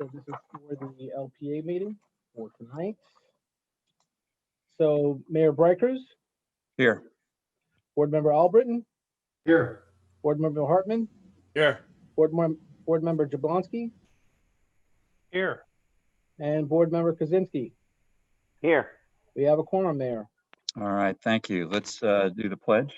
So this is for the LPA meeting for tonight. So Mayor Brikers, Here. Board Member Albritton, Here. Board Member Hartman, Here. Board Mem- Board Member Jablonski, Here. and Board Member Kaczynski. Here. We have a quorum, Mayor. All right, thank you. Let's uh, do the pledge.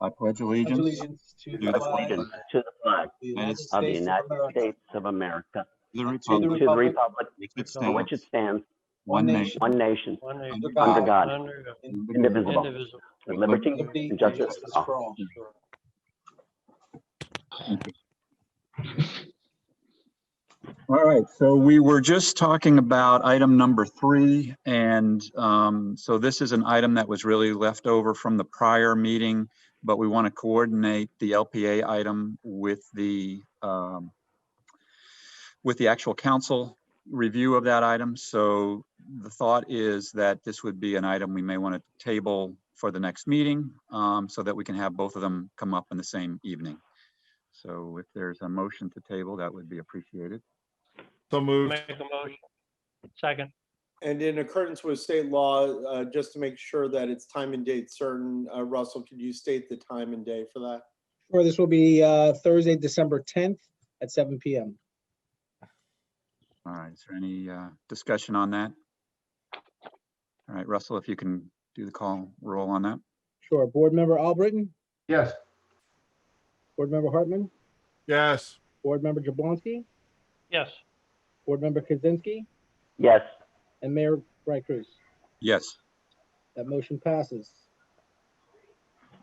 I pledge allegiance to Allegiance to the the flag flag of of allegiance to the flag the United of United the States of United America, States of America, the and republic to the republic republic which for which it stands, stands, one one nation, one nation, One nation. under God, under God, Under God. indivisible, Indivisible. with liberty liberty, and justice for all. All right, so we were just talking about item number three, and um, so this is an item that was really left over from the prior meeting, but we want to coordinate the LPA item with the, um, with the actual council review of that item. So the thought is that this would be an item we may want to table for the next meeting, um, so that we can have both of them come up in the same evening. So if there's a motion to table, that would be appreciated. So moved. Make a motion. Second. And in accordance with state law, uh, just to make sure that it's time and date certain, uh, Russell, could you state the time and day for that? Sure, this will be uh, Thursday, December 10th at 7 PM. All right, is there any uh, discussion on that? All right, Russell, if you can do the call, roll on that. Sure, Board Member Albritton, Yes. Board Member Hartman, Yes. Board Member Jablonski, Yes. Board Member Kaczynski, Yes, and Mayor Brikers. Yes. That motion passes.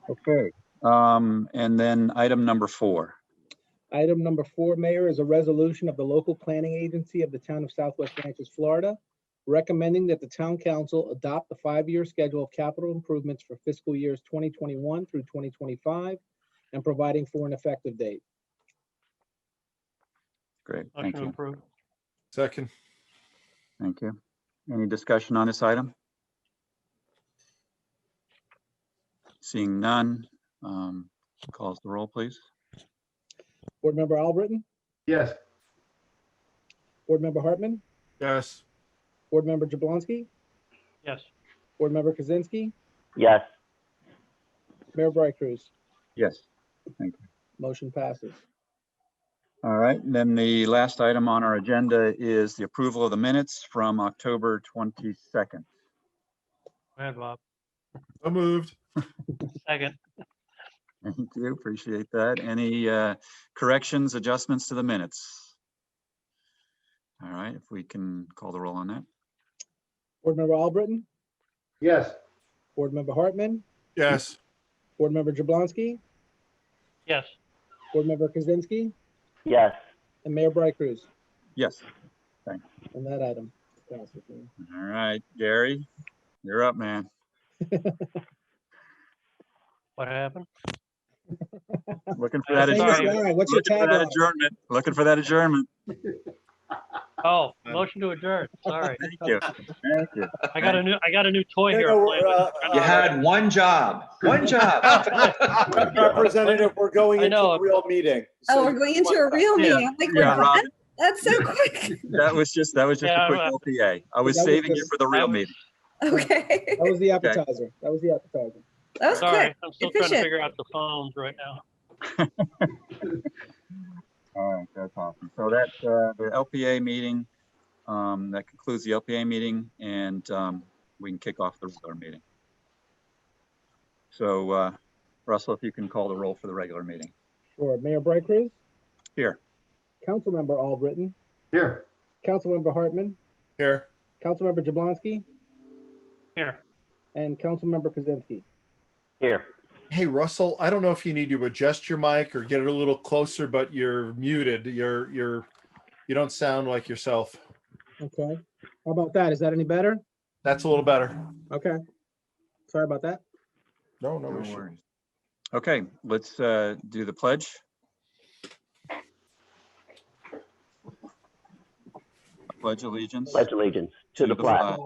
Okay. Um, And then item number four. Item number four, Mayor, is a resolution of the local planning agency of the town of Southwest Ranches, Florida, recommending that the town council adopt the five-year schedule of capital improvements for fiscal years 2021 through 2025 and providing for an effective date. Great, thank Motion you, approved. Second. thank you. Any discussion on this item? Seeing none, um, calls the roll, please. Board Member Albritton, Yes. Board Member Hartman, Yes. Board Member Jablonski, Yes. Board Member Kaczynski, yes, Mayor Bright Cruz. Yes. Motion passes. All right, and then the last item on our agenda is the approval of the minutes from October 22nd. Go ahead, Bob. So moved. Second. Thank you, appreciate that. Any uh, corrections, adjustments to the minutes? All right, if we can call the roll on that. Board Member Albritton, Yes. Board Member Hartman, Yes. Board Member Jablonski, Yes. Board Member Kaczynski, yes. and Mayor Bright Cruz. Yes, on that item. Passes, Mayor. all right, Gary, you're up, man. What happened? Looking for that Hey, adjournment. All right, what's your Looking for that tagline? adjournment. Looking for that adjournment. Oh, motion to adjourn. Sorry. Thank you. Thank you. I got a new, I got a new toy No, here. no, I'm playing uh, with. uh, You had one job, one job. Representative, we're going I into know. a real meeting. Oh, So we're you going want into a that. real Yeah, meeting. I'm like, Yeah, we're Robin, done? That's so quick. that was just, that was just a Yeah, quick I'm, LPA. I was That was saving you just- for the real that was- meeting. Okay. That was the appetizer. That was the appetizer. That was Sorry, quick. I'm still trying to Efficient. figure out the phones right now. All right, that's awesome. So that's uh, the LPA meeting. Um, That concludes the LPA meeting and um, we can kick off the regular meeting. So uh, Russell, if you can call the roll for the regular meeting. Sure. Mayor Bright Cruz, Here. Councilmember Albritton, Here. Councilmember Hartman, Here. Councilmember Jablonski, Here. and Councilmember Kaczynski. Here, Hey, Russell, I don't know if you need to adjust your mic or get it a little closer, but you're muted. You're, you're, you don't sound like yourself. Okay. How about that? Is that any better? That's a little better. Okay. Sorry about that. No, no No issue. worries. Okay, let's uh, do the pledge. I Pledge allegiance pledge allegiance to the flag Uh,